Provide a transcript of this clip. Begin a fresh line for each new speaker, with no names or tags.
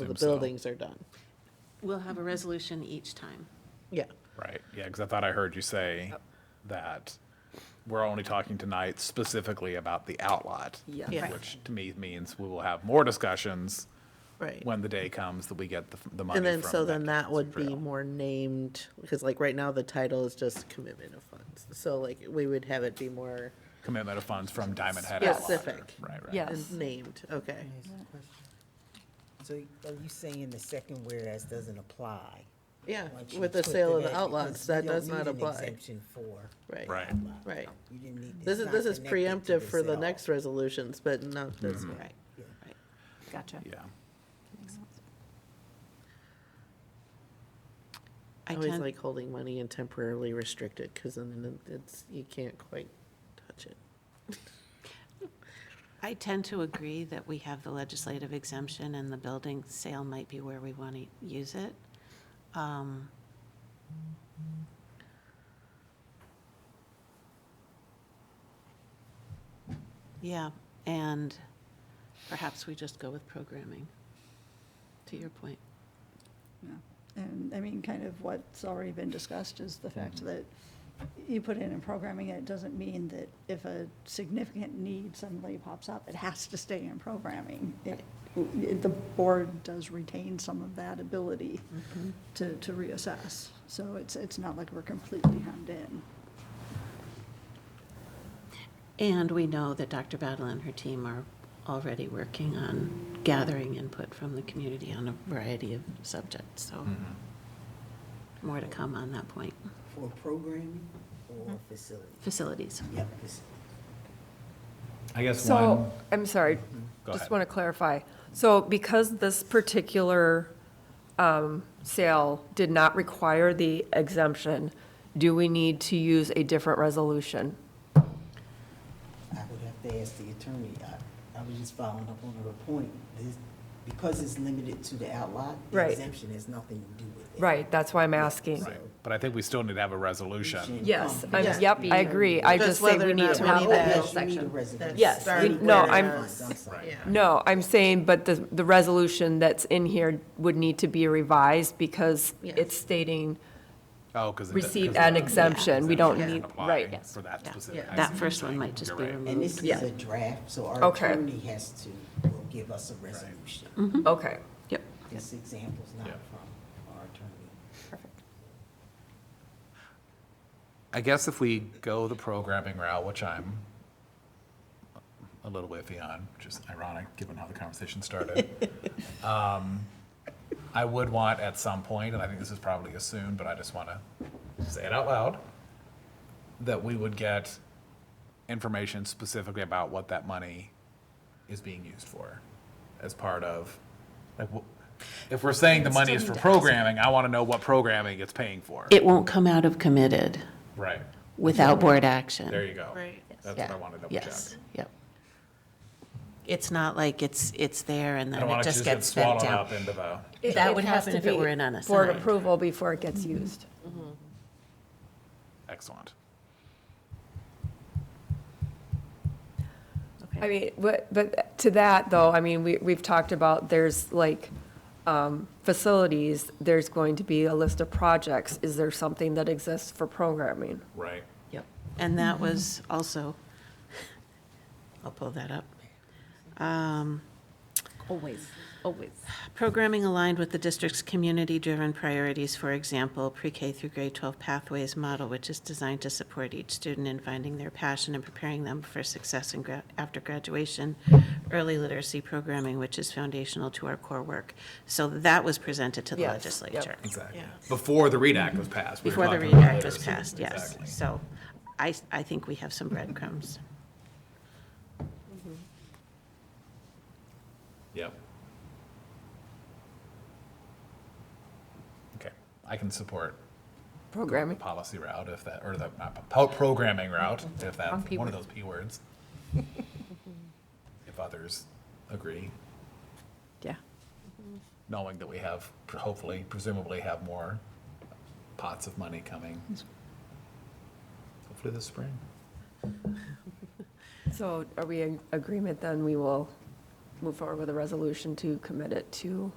So the
Stem cell.
buildings are done.
We'll have a resolution each time.
Yeah.
Right, yeah, because I thought I heard you say that we're only talking tonight specifically about the outlot.
Yeah.
Yeah.
Which to me means we will have more discussions
Right.
when the day comes that we get the, the money
And then,
from.
so then that would be
trail.
more named, because like right now, the title is just commitment of funds. So like, we would have it be more
Commitment of funds from Diamond Head Outlot.
specific
Right, right.
Yes.
and named, okay.
Can I ask a question? So are you saying the second whereas doesn't apply?
Yeah,
once you
with the
put
sale of
that-
the outlets,
because you
that
don't
does
need
not
an
apply.
Exemption for.
Right.
Right.
outlot.
Right.
You didn't need.
This is,
it's
this
not
is
connected to
preemptive for the
sale.
next resolutions, but not
Mm-hmm.
this one.
Right, right.
Gotcha.
Yeah,
I
I always
tend,
like holding money and temporarily restricted, because then it's, you can't quite touch it.
I tend to agree that we have the legislative exemption and the building sale might be where we want to use it. Um, Yeah, and perhaps we just go with programming, to your point.
Yeah, And, I mean, kind of what's already been discussed is the fact that you put in in programming, it doesn't mean that if a significant need suddenly pops up, it has to stay in programming. It- it- The board does retain some of that ability to, to reassess. So it's, it's not like we're completely hemmed in.
And we know that Dr. Battle and her team are already working on gathering input from the community on a variety of subjects, so
Mm-hmm.
more to come on that point.
For programming or facility?
Facilities.
Yep. fac-
I guess one,
So, I'm sorry,
Go ahead.
just want to clarify. So because this particular um, sale did not require the exemption, do we need to use a different resolution?
I would have to ask the attorney. I, I was just following up on her point. This, because it's limited to the outlot, the
Right.
exemption has nothing to do with it.
Right, that's why I'm asking. Um,
right, but I think we still need to have a resolution.
Should
Yes,
come
I'm-
back
yep, I
to-
agree. I
That's
just say
whether
we
or
need
not
to
we
have
need
a
Oh,
that.
whole
yes, you need a
section.
resolution.
Yes, we-
Starting
no,
where
I'm-
it is.
I'm sorry.
Right.
No, I'm saying, but the, the resolution that's in here would need to be revised because
Yeah.
it's stating
Oh, because.
receive an exemption. We don't
Yeah.
need,
Apply
right.
for that
Yeah.
specific.
Yeah.
That
item.
first one might just be
You're right.
And this
removed.
is a draft, so our
Okay. Mm.
attorney has to, will give us a resolution.
Okay.
Yep.
This example's not
Yeah.
from our attorney.
I guess if we go the programming route, which I'm a little iffy on, which is ironic given how the conversation started. um, I would want at some point, and I think this is probably assumed, but I just want to say it out loud, that we would get information specifically about what that money is being used for as part of, like, wh- if we're saying the money is for programming, I want to know what programming it's paying for.
It won't come out of committed
Right.
without board action.
There you go.
Right.
That's what I wanted to double check.
Yes, yep. It's not like it's, it's there and
I
then
don't
it
want it to
just
just get
gets spent
swallowed up
down.
into the,
That would happen if it were an
Board
unassigned.
approval before it gets used.
excellent.
Okay.
I mean, but, but to that though, I mean, we, we've talked about, there's like, um, facilities, there's going to be a list of projects. Is there something that exists for programming?
Right.
Yep. And that was also, I'll pull that up. Um,
Always, always.
Programming aligned with the district's community-driven priorities, for example, pre-K through grade 12 pathways model, which is designed to support each student in finding their passion and preparing them for success in gra- after graduation. Early literacy programming, which is foundational to our core work. So that was presented to the
Yes, yep.
legislature.
Exactly.
Yeah.
Before the READ Act was passed. we were
Before the
talking
READ
about
Act was
literacy.
passed, yes.
Exactly.
So I, I think we have some breadcrumbs.
Yep. Okay, I can support the
Programming?
policy route if that, or the, not, po- programming route,
Mm-hmm.
if
Wrong
that,
P
one of
word.
those P words. If others agree,
Yeah.
knowing that we have, hopefully, presumably have more pots of money coming. Hopefully this spring.
So are we in agreement then? We will move forward with a resolution to commit it to